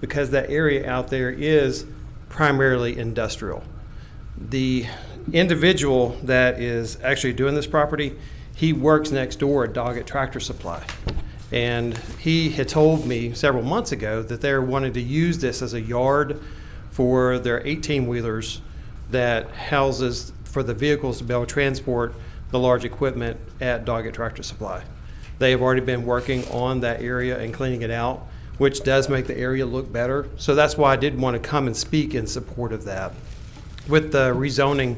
because that area out there is primarily industrial. The individual that is actually doing this property, he works next door at Doggett Tractor Supply. And he had told me several months ago that they're wanting to use this as a yard for their 18-wheelers that houses for the vehicles to be able to transport the large equipment at Doggett Tractor Supply. They have already been working on that area and cleaning it out, which does make the area look better. So that's why I did want to come and speak in support of that. With the rezoning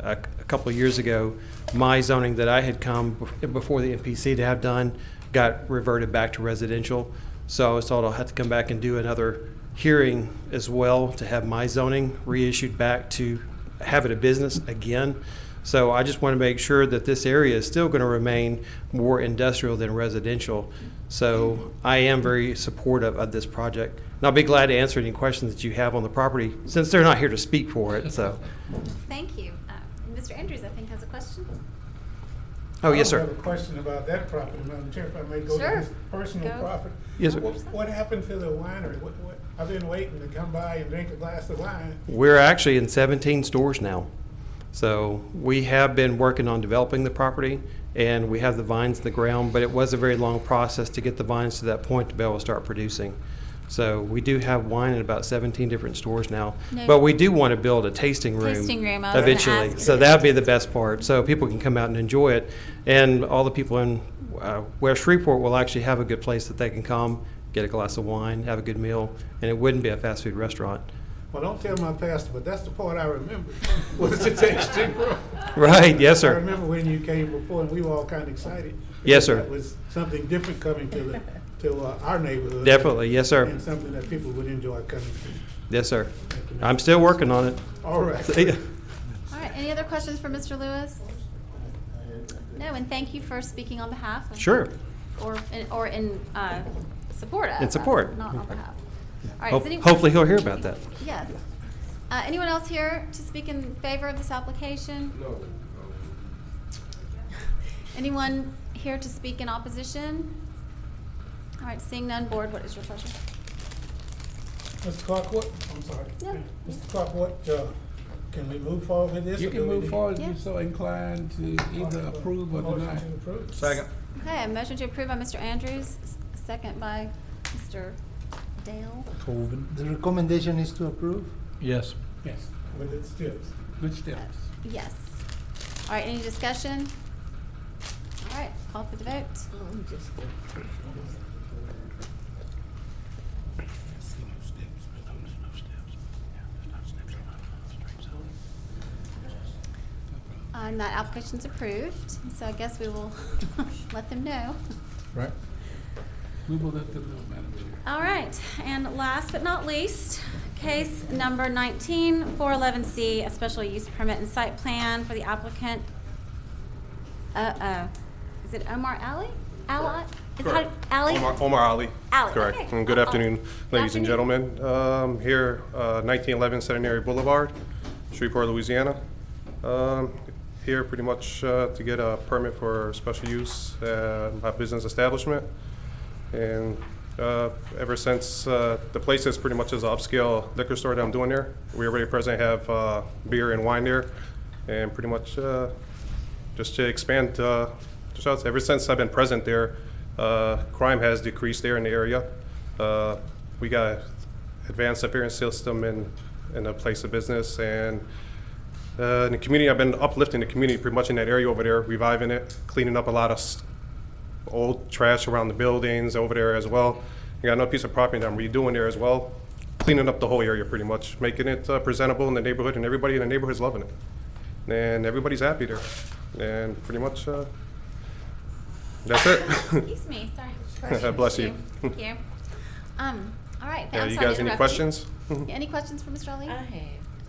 uh, a couple of years ago, my zoning that I had come bef- before the MPC to have done got reverted back to residential. So I was told I'll have to come back and do another hearing as well to have my zoning reissued back to have it a business again. So I just want to make sure that this area is still going to remain more industrial than residential. So I am very supportive of this project. And I'll be glad to answer any questions that you have on the property, since they're not here to speak for it, so. Thank you. Uh, and Mr. Andrews, I think, has a question. Oh, yes, I sir. have a question about that property, Madam Chair, if I may go to Sure. his personal Go. property. Yes, sir. What what happened to the winery? What, what, I've been waiting to come by and drink a glass of wine. We're actually in 17 stores now. So we have been working on developing the property and we have the vines in the ground, but it was a very long process to get the vines to that point to be able to start producing. So we do have wine in about 17 different stores now, No. but we do want to build a tasting room. Tasting room, I was gonna Eventually, ask. so that'd be the best part, so people can come out and enjoy it. And all the people in uh, West Shreveport will actually have a good place that they can come, get a glass of wine, have a good meal, and it wouldn't be a fast food restaurant. Well, don't tell my pastor, but that's the part I remember, was the tasting room. Right, yes, I sir. remember when you came before, and we were all kind of excited. Yes, sir. That was something different coming to the, to uh, our neighborhood. Definitely, yes, sir. And something that people would enjoy coming to. Yes, sir. I'm still working on it. All right. See ya. All right, any other questions for Mr. Lewis? No, and thank you for speaking on behalf of. Sure. Or, in- or in uh, support of. uh, In support. Not on behalf. All right, is Ho- any- Hopefully, he'll hear about that. Yes. Uh, Anyone else here to speak in favor of this application? No. Anyone here to speak in opposition? All right, seeing none, board, what is your pleasure? Mr. Clarkwood, I'm sorry. No. Mr. Clarkwood, uh, can we move forward with this? You or can do we move need- forward if Yeah. you're so inclined to either approve or deny. Motion to approve. Okay, a motion to approve by Mr. Andrews, s- second by Mr. Dale. The recommendation is to approve? Yes. Yes, With its tips. good steps. Yes. All right, any discussion? All right, call for the vote. And that application's approved, so I guess we will let them know. Right. We will let them know, Madam Chair. All right, and last but not least, case number 19, 411C, a special use permit and site plan for the applicant. Uh-oh, is it Omar Ali? Ali? Is it Correct. Ali? Omar Omar Ali. Ali, Correct. okay. And good Oh, afternoon, ladies and afternoon. gentlemen. Um, Here, uh, 1911 Centenary Boulevard, Shreveport, Louisiana. Um, Here pretty much uh, to get a permit for special use, uh, my business establishment. And uh, ever since, uh, the place is pretty much as upscale liquor store that I'm doing there. We already presently have uh, beer and wine there, and pretty much uh, just to expand, uh, just outs- ever since I've been present there, uh, crime has decreased there in the area. Uh, We got advanced appearance system in, in a place of business, and uh, in the community, I've been uplifting the community pretty much in that area over there, reviving it, cleaning up a lot of s- old trash around the buildings over there as well. I got another piece of property that I'm redoing there as well, cleaning up the whole area pretty much, making it uh, presentable in the neighborhood, and everybody in the neighborhood's loving it. And everybody's happy there. And pretty much, uh, that's it. Excuse me, sorry. Bless you. Thank you. Um, all right. Yeah, I'm sorry you to guys any interrupt questions? Any questions for Mr. Ali? I have.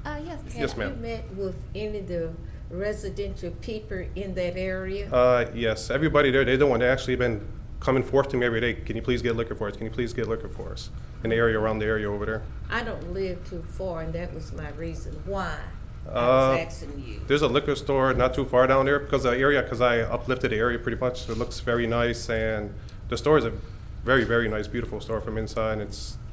Uh, yes. Ms. Yes, ma'am. Have you met with any of the residential people in that area? Uh, yes, everybody there, they're the one that actually been coming forth to me every day. Can you please get liquor for us? Can you please get liquor for us? In the area around the area over there. I don't live too far, and that was my reason why I Uh, was asking you. There's a liquor store not too far down there because the area, because I uplifted the area pretty much. It looks very nice and the store is a very, very nice, beautiful store from inside. It's